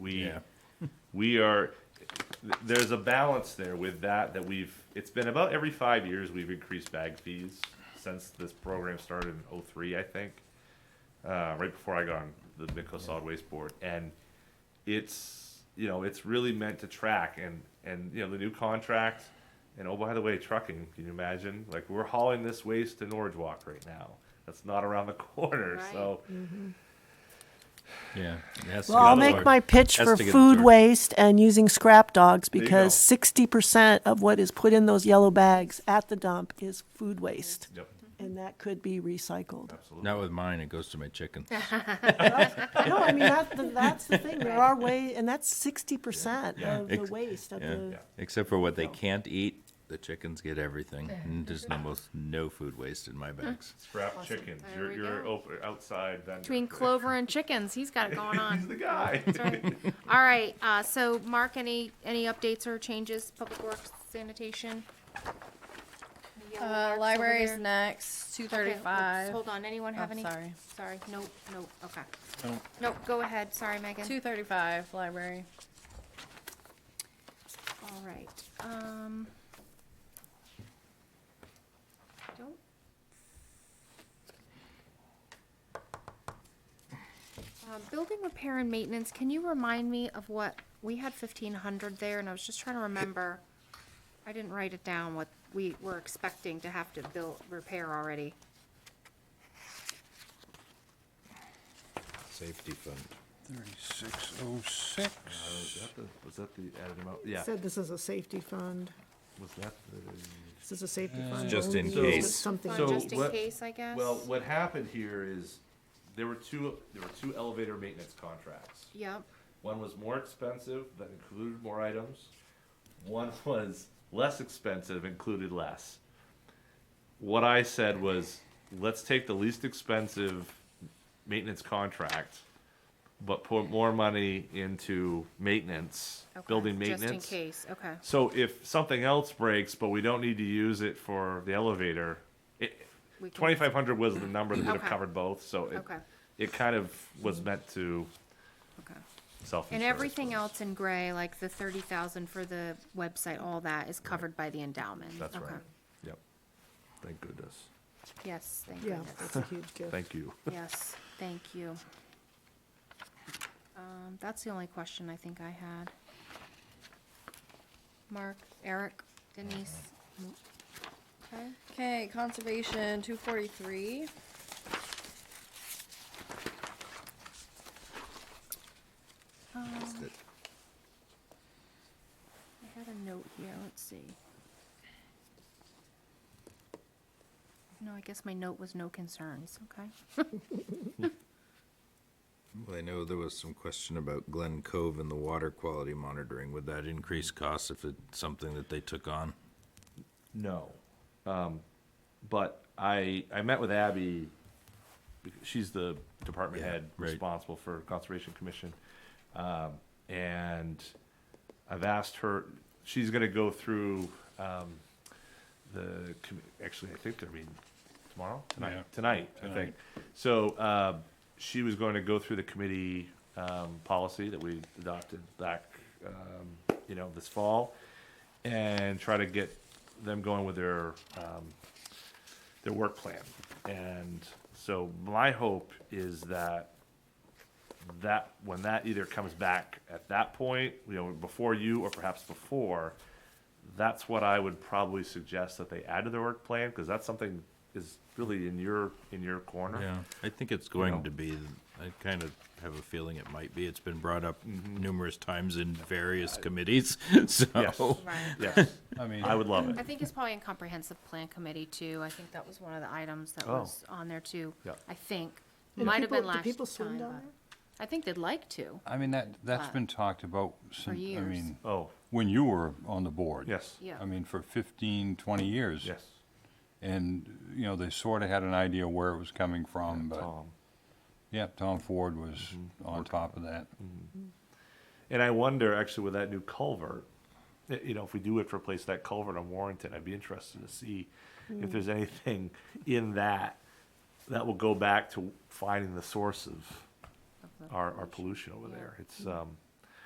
we Yeah. we are th- there's a balance there with that that we've it's been about every five years we've increased bag fees since this program started in '03, I think uh, right before I got on the Midco Solid Waste Board, and it's you know it's really meant to track and and you know the new contract and oh by the way trucking can you imagine like we're hauling this waste to Norwich Walk right now that's not around the corner so Yeah. it has to Well, get I'll lower. make my pitch Has for to get food lower. waste and using scrap dogs you because go. sixty percent of what is put in those yellow bags at the dump is food waste, yep and that could be recycled. absolutely Not with mine. It goes to my chickens. No, I mean, that, the- that's the thing, there are way, and that's sixty percent Yeah. of the Ex- waste of yeah. the, Except for what they can't eat, the chickens get everything, and there's almost no food waste in my bags. scrap chickens you're There we you're go. open, outside vendor. Between Clover and chickens, he's got it going he's the on. guy That's right. All right, uh, so Mark, any, any updates or changes, public works, sanitation? The yellow marks Uh, over library's there? next, two Okay, let's- thirty-five. Hold on, anyone have Oh, any? sorry. Sorry, nope, nope, okay. Nope, go ahead, sorry, Megan. Two thirty-five, library. All right, um. Don't. Uh, building repair and maintenance, can you remind me of what, we had fifteen hundred there and I was just trying to remember. I didn't write it down, what we were expecting to have to build, repair already. Safety fund. Thirty-six oh six. was that the was that the added amount yeah Said this is a safety fund. was that the This is a safety fund. Just only in used if case. Something. So- Fund just in what- case, I guess. Well, what happened here is there were two there were two elevator maintenance contracts. Yep, One was more expensive that included more items. One was less expensive, included less. What I said was, let's take the least expensive maintenance contract, but put more money into maintenance, okay, building Just in maintenance. case, okay. So if something else breaks, but we don't need to use it for the elevator, it, we can- twenty-five hundred was the number that would have Okay. covered both, so it, Okay. it kind of was meant to Okay. self-insure. And I everything suppose. else in gray, like the thirty thousand for the website, all that is covered by the endowment. That's Okay. right. Yep. Thank goodness. Yes, thank Yeah, goodness. that's a huge gift. Thank you. Yes, thank you. Um, that's the only question I think I had. Mark, Eric, Denise? No. Mm-hmm. Okay, Okay, conservation, two forty-three. um, I had a note here, let's see. No, I guess my note was no concerns, okay? Well, I know there was some question about Glen Cove and the water quality monitoring. Would that increase costs if it's something that they took on? No. Um, but I, I met with Abby, because she's the department Yeah, head right. responsible for Conservation Commission. Um, and I've asked her, she's gonna go through, um, the, com- actually, I think they're meeting tomorrow? Yeah. Tonight, tonight, I think. So, uh, she was going to go through the committee, um, policy that we adopted back, um, you know, this fall and try to get them going with their um, their work plan. And so my hope is that that when that either comes back at that point, you know, before you or perhaps before, that's what I would probably suggest that they add to their work plan because that's something is really in your in your corner. Yeah, I think it's No. going to be, I kind of have a feeling it might be. It's been brought up Mm-hmm. numerous times in various committees, Yes. so. Right. Yes. I mean, I would love it. I think it's probably in comprehensive plan committee too. I think that was one of the items that Oh. was on there too. Yeah. I think. And Might have been people- do last people swim time, down but I think they'd like to. I mean, that, that's Uh, been talked about since, I years. mean, Oh, when you were on the board. yes. Yeah. I mean, for 15, 20 years. Yes. And, you know, they sort of had an idea where it was coming from, but, Tom. Mm-hmm. yeah, Tom Ford was on top of that. And I wonder, actually, with that new culvert, i- you know, if we do have to replace that culvert on Warrington, I'd be interested to see if there's anything in that that will go back to finding the source of our, our pollution over there. It's, um,